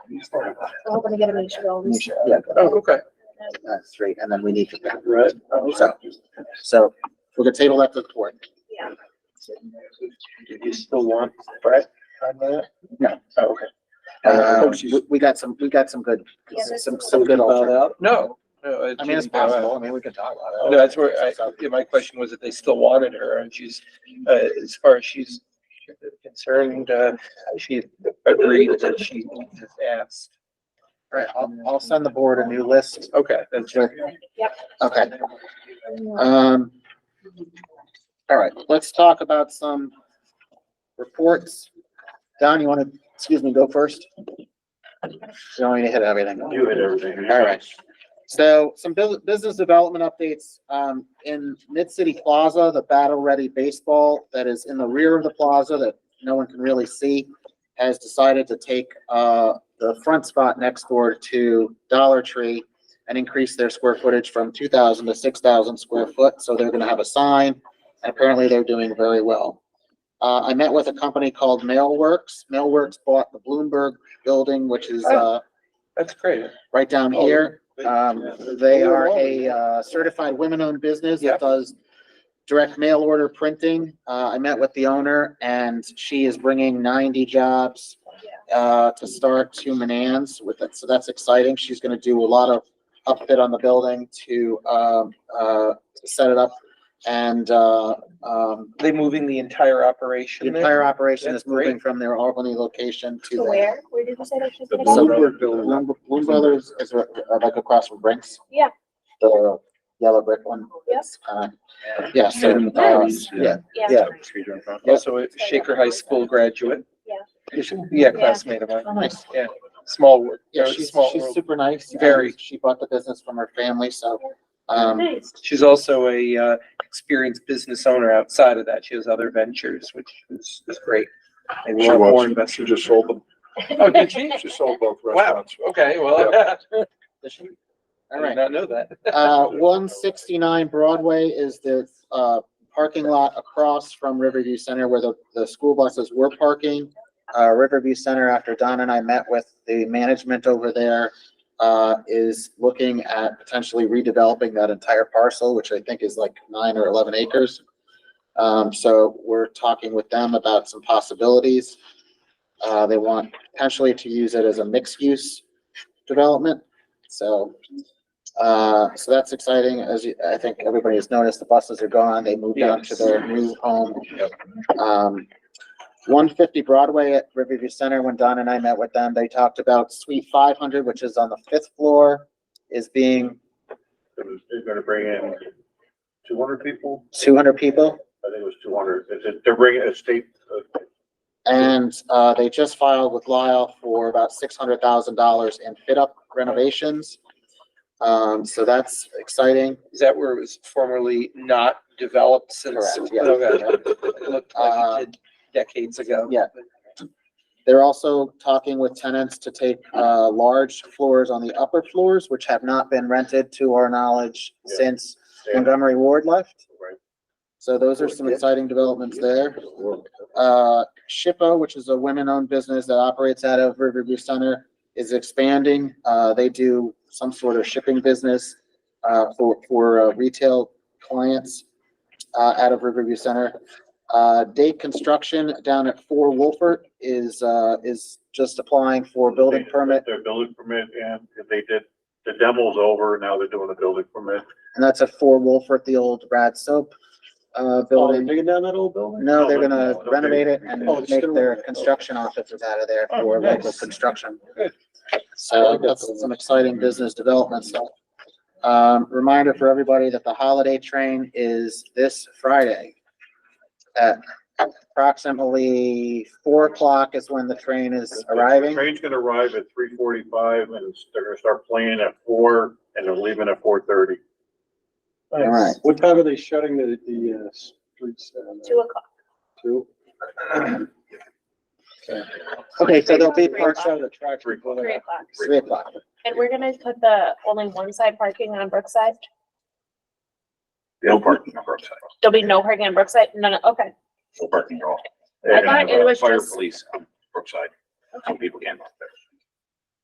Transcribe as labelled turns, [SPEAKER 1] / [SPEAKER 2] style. [SPEAKER 1] I'm hoping to get a make sure all this.
[SPEAKER 2] Yeah,
[SPEAKER 3] Oh, okay.
[SPEAKER 2] that's three, and then we need to,
[SPEAKER 3] Right.
[SPEAKER 2] so, so we're gonna table that to the board.
[SPEAKER 1] Yeah.
[SPEAKER 3] You still want Brett on that?
[SPEAKER 2] No.
[SPEAKER 3] Oh, Okay.
[SPEAKER 2] Uh, we, we got some, we got some good,
[SPEAKER 1] Yeah, that's-
[SPEAKER 2] some, some good alternatives.
[SPEAKER 3] No, no. it
[SPEAKER 2] I mean, it's
[SPEAKER 3] didn't bow out.
[SPEAKER 2] possible, I mean, we can talk about it.
[SPEAKER 3] No, that's where I, yeah, my question was if they still wanted her and she's, uh, as far as she's concerned, uh, she agreed that she just asked.
[SPEAKER 2] Right, I'll, I'll send the board a new list.
[SPEAKER 3] Okay, that's right.
[SPEAKER 2] Okay, um, all right, let's talk about some reports. Don, you wanna, excuse me, go first? You don't need to hit everything.
[SPEAKER 4] You hit everything.
[SPEAKER 2] All right. So some bu- business development updates, um, in Mid-City Plaza, the Battle Ready Baseball that is in the rear of the plaza that no one can really see has decided to take, uh, the front spot next door to Dollar Tree and increase their square footage from two thousand to six thousand square foot. So they're gonna have a sign and apparently they're doing very well. Uh, I met with a company called Mailworks. Mailworks bought the Bloomberg Building, which is, uh,
[SPEAKER 3] That's great.
[SPEAKER 2] right down
[SPEAKER 3] Oh,
[SPEAKER 2] here.
[SPEAKER 3] But-
[SPEAKER 2] Um, they are a uh, certified women-owned business
[SPEAKER 3] Yeah.
[SPEAKER 2] that does direct mail order printing. Uh, I met with the owner and she is bringing ninety jobs uh, to start to Manans with it. So that's exciting. She's gonna do a lot of upfit on the building to, um, uh, to set it up. And, uh, um,
[SPEAKER 3] They moving the entire
[SPEAKER 2] the
[SPEAKER 3] operation
[SPEAKER 2] entire
[SPEAKER 3] there?
[SPEAKER 2] operation is
[SPEAKER 3] That's great.
[SPEAKER 2] moving from their Albany location to
[SPEAKER 1] To
[SPEAKER 2] there.
[SPEAKER 1] where? Where did you say that? she's
[SPEAKER 4] The
[SPEAKER 1] gonna
[SPEAKER 2] So
[SPEAKER 1] go?
[SPEAKER 4] Bloomberg building.
[SPEAKER 2] Bloom Bloom Brothers is uh, like across from Brinks.
[SPEAKER 1] Yeah.
[SPEAKER 2] The yellow brick one.
[SPEAKER 1] Yes.
[SPEAKER 2] Uh, Yeah, so, uh,
[SPEAKER 4] Nice.
[SPEAKER 2] yeah,
[SPEAKER 1] Yeah.
[SPEAKER 2] yeah.
[SPEAKER 3] Also a Shaker High School graduate.
[SPEAKER 1] Yeah.
[SPEAKER 3] You should- Yeah, classmate of
[SPEAKER 2] Oh,
[SPEAKER 3] mine.
[SPEAKER 2] nice.
[SPEAKER 3] Yeah, small world.
[SPEAKER 2] Yeah,
[SPEAKER 3] or
[SPEAKER 2] she's,
[SPEAKER 3] small
[SPEAKER 2] she's
[SPEAKER 3] world.
[SPEAKER 2] super nice.
[SPEAKER 3] Very.
[SPEAKER 2] Um, She bought the business from her family, so, um,
[SPEAKER 1] Nice.
[SPEAKER 3] She's also a, uh, experienced business owner outside of that. She has other ventures, which is, is great. And
[SPEAKER 4] She
[SPEAKER 3] we'll have more
[SPEAKER 4] was, she
[SPEAKER 3] investors.
[SPEAKER 4] just sold them,
[SPEAKER 3] Oh, did she?
[SPEAKER 4] she sold both
[SPEAKER 3] Wow,
[SPEAKER 4] restaurants.
[SPEAKER 3] okay, well,
[SPEAKER 2] does she-
[SPEAKER 3] I
[SPEAKER 2] all
[SPEAKER 3] did
[SPEAKER 2] right.
[SPEAKER 3] not know that.
[SPEAKER 2] Uh, one sixty-nine Broadway is the, uh, parking lot across from Riverview Center where the, the school buses were parking. Uh, Riverview Center, after Don and I met with the management over there, uh, is looking at potentially redeveloping that entire parcel, which I think is like nine or eleven acres. Um, so we're talking with them about some possibilities. Uh, they want potentially to use it as a mixed-use development, so uh, so that's exciting. As you, I think everybody has noticed, the buses are gone. They moved on to their new home. Um, one fifty Broadway at Riverview Center, when Don and I met with them, they talked about suite five hundred, which is on the fifth floor, is being
[SPEAKER 4] They're gonna bring in two hundred people,
[SPEAKER 2] two hundred people.
[SPEAKER 4] I think it was two hundred, they're bringing a state, uh,
[SPEAKER 2] And, uh, they just filed with Lyle for about six hundred thousand dollars in fit up renovations. Um, so that's exciting.
[SPEAKER 3] Is that where it was formerly not developed since?
[SPEAKER 2] Correct, yeah.
[SPEAKER 3] Okay. It looked
[SPEAKER 2] Uh,
[SPEAKER 3] like it did decades ago.
[SPEAKER 2] yeah. They're also talking with tenants to take uh, large floors on the upper floors, which have not been rented to our knowledge
[SPEAKER 4] Yeah.
[SPEAKER 2] since
[SPEAKER 4] state,
[SPEAKER 2] Montgomery Ward left.
[SPEAKER 4] Right.
[SPEAKER 2] So those are some exciting developments there. Uh, Shippo, which is a women-owned business that operates out of Riverview Center, is expanding. Uh, They do some sort of shipping business uh, for, for uh, retail clients uh, out of Riverview Center. Uh, Date Construction down at Four Wolfert is, uh, is just applying for building permit,
[SPEAKER 4] Their building permit, and they did, the demo's over, now they're doing the building permit.
[SPEAKER 2] and that's at Four Wolfert, the old Brad Soap uh, building.
[SPEAKER 5] Taking Oh, down that old building?
[SPEAKER 2] No, they're
[SPEAKER 4] No, no,
[SPEAKER 2] gonna
[SPEAKER 4] no, they're
[SPEAKER 2] renovate it
[SPEAKER 4] gonna-
[SPEAKER 2] and
[SPEAKER 5] Oh, it's
[SPEAKER 2] make
[SPEAKER 5] gonna
[SPEAKER 2] their
[SPEAKER 5] renovate, okay.
[SPEAKER 2] construction offices out of there
[SPEAKER 3] Oh,
[SPEAKER 2] for local
[SPEAKER 3] nice.
[SPEAKER 2] construction.
[SPEAKER 3] Good.
[SPEAKER 2] So that's some exciting business development stuff. Um, reminder for everybody that the holiday train is this Friday. At approximately four o'clock is when the train is arriving.
[SPEAKER 4] Train's gonna arrive at three forty-five, and they're gonna start playing at four, and they're leaving at four thirty.
[SPEAKER 2] All right.
[SPEAKER 5] What time are they shutting the, the, uh, streets down
[SPEAKER 1] Two
[SPEAKER 5] there?
[SPEAKER 1] o'clock.
[SPEAKER 5] Two?
[SPEAKER 2] Okay, so there'll be
[SPEAKER 1] Three
[SPEAKER 2] parks
[SPEAKER 5] Parks out of the tracks.
[SPEAKER 4] Three o'clock.
[SPEAKER 1] Three o'clock.
[SPEAKER 2] three o'clock.
[SPEAKER 1] And we're gonna put the only one side parking on Brookside?
[SPEAKER 4] No parking, no parking,
[SPEAKER 1] There'll be no parking on Brookside? No, no, okay.
[SPEAKER 4] no parking at all.
[SPEAKER 1] I thought it was
[SPEAKER 4] Fire
[SPEAKER 1] just-
[SPEAKER 4] police on Brookside, some people can't. park there.